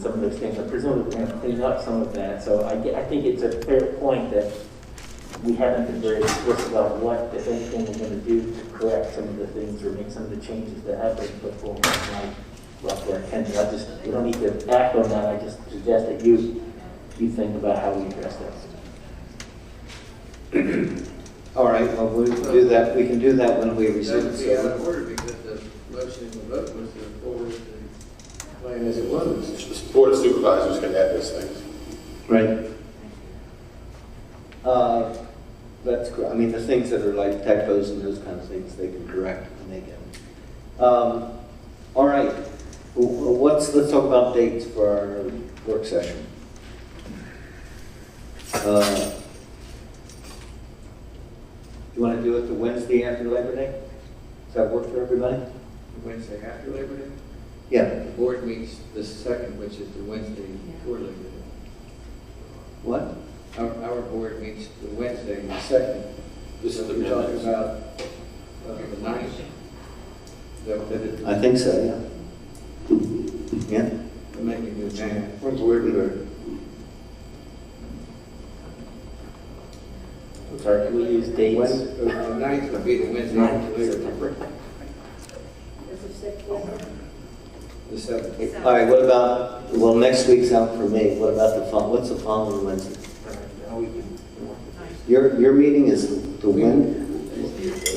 some of those things, and presumably we're gonna clean up some of that, so I, get- I think it's a fair point that we haven't been very explicit about what, if anything, we're gonna do to correct some of the things or make some of the changes that have been put forward, like, roughly, I can, I just, we don't need to act on that, I just suggest that you, you think about how we address that. All right, well, we can do that, we can do that when we receive That it. would be out of so- order because the motion and the vote was to forward the plan as it was. The Board of Supervisors can add those things. Right. Uh, That's, cor- I mean, the things that are like typos and those kind of things, they can correct when they get them. Um, All right, Wh- wh- what's, let's talk about dates for our work session. Uh, You want to do it the Wednesday after Labor Day? Does that work for everybody? Wednesday after Labor Day? Yeah. The board meets the second, which is the Wednesday before Labor Day. What? Our, our board meets the Wednesday, the second. This is the We're talking minutes. about uh, the ninth. Is that what that is? I think so, yeah. Yeah? We're making the ninth. When's Labor Day? Sorry, can we use dates? Wednesday- The uh, ninth would be the Wednesday after Labor Day. Is it six Wednesday? The seventh. All right, what about, well, next week's out for me, what about the, fol- what's the following Wednesday? Your, your meeting is the when?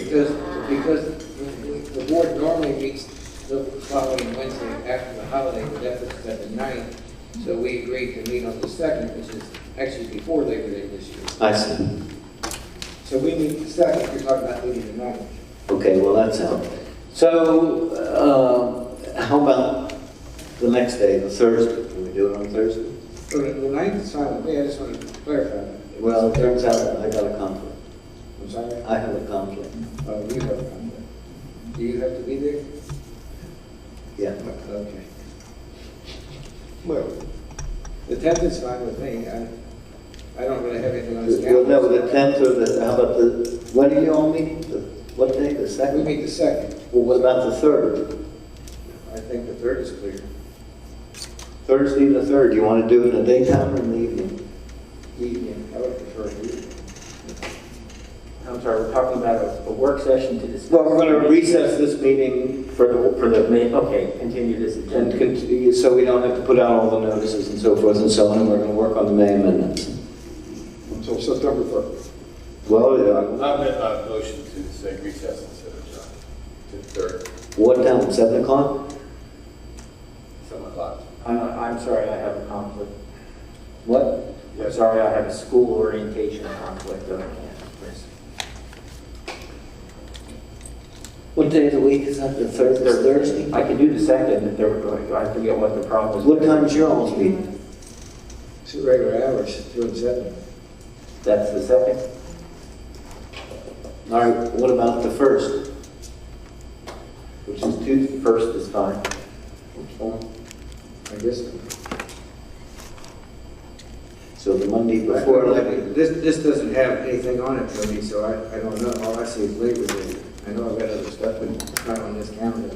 Because, because the- the board normally meets the following Wednesday after the holiday, but that puts us at the ninth. So we agreed to meet on the second, which is actually before Labor Day this year. I see, So we meet the second, you're talking about meeting the ninth. okay, well, that's out. So, uh, how about the next day, the Thursday, can we do it on Thursday? So the the ninth is fine with me, I just wanted to clarify that. Well, it turns out I got a conflict, I'm sorry, I have a conflict, oh, you have a conflict. Do you have to be there? yeah. Okay. Well, the tenth is fine with me, I, I don't really have anything on the Well, calendar. no, the tenth or the, how about the, when are you all meeting? The- What day, the We second? meet the second. Well, what about the third? I think the third is clear. Thursday the third, you want to do it in the daytime or in the evening? Evening, I would prefer evening. I'm sorry, we're talking about a, a work session to discuss. Well, we're going to recess this meeting For the, for the, ma- okay, continue this and agenda. continue, so we don't have to put out all the notices and so forth and so on, and we're going to work on the May amendments. until September 3rd. Well, yeah, I meant my motion to say recess instead of adjourn to third, what time, seven o'clock? seven o'clock. I'm, Uh, I'm sorry, I have a conflict. What? I'm sorry, I have a school orientation conflict that I can't miss. What day of the week is that, the third, the Thursday? I could do the second, if there were, I forget what the problem is. What time's your all's meeting? Two regular hours, two and seven. That's the second. All right, what about the first? Which is Tuesday, first is fine. I guess. So the Monday before, like, this, this doesn't have anything on it for me, so I, I don't know. All I see is Labor Day. I know I've got other stuff, but it's not on this calendar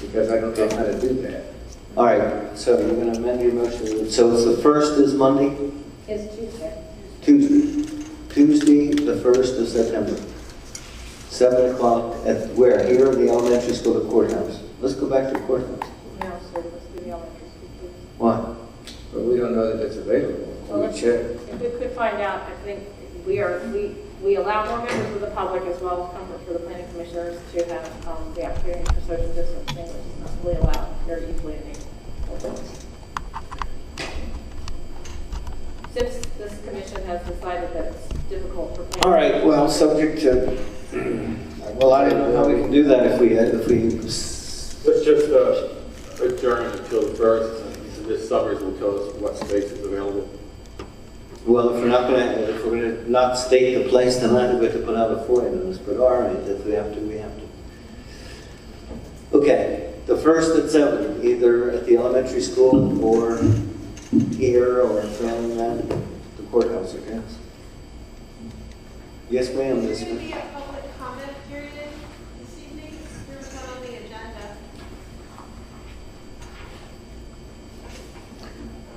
because I don't know how to do that. all right, so you're going to amend your motion, so it's the first is Monday? It's Tuesday. Tuesday, Tuesday, the 1st of September, 7 o'clock at where? Here in the elementary school, the courthouse. Let's go back to the courthouse. No, so let's do the elementary school. Why? But we don't know that it's available. Well, We let's- check. If we could find out, I think we are, we, we allow more members of the public as well as comfort for the planning commissioners to have, um, the opportunity for social distancing, which is not really allowed very easily in these. Since this commission has decided that it's difficult for. planning- All right, well, subject to, well, I don't know how we can do that if we, if we, s- Let's just uh, adjourn until the first, and this summaries will tell us what space is available. well, if we're not going to, if we're going to not state the place tonight, we have to put out a FOIA notice, but all right, if we have to, we have to. Okay, the 1st at 7, either at the elementary school or here or failing that, the courthouse, I guess. Yes, ma'am, Would this it one. be a public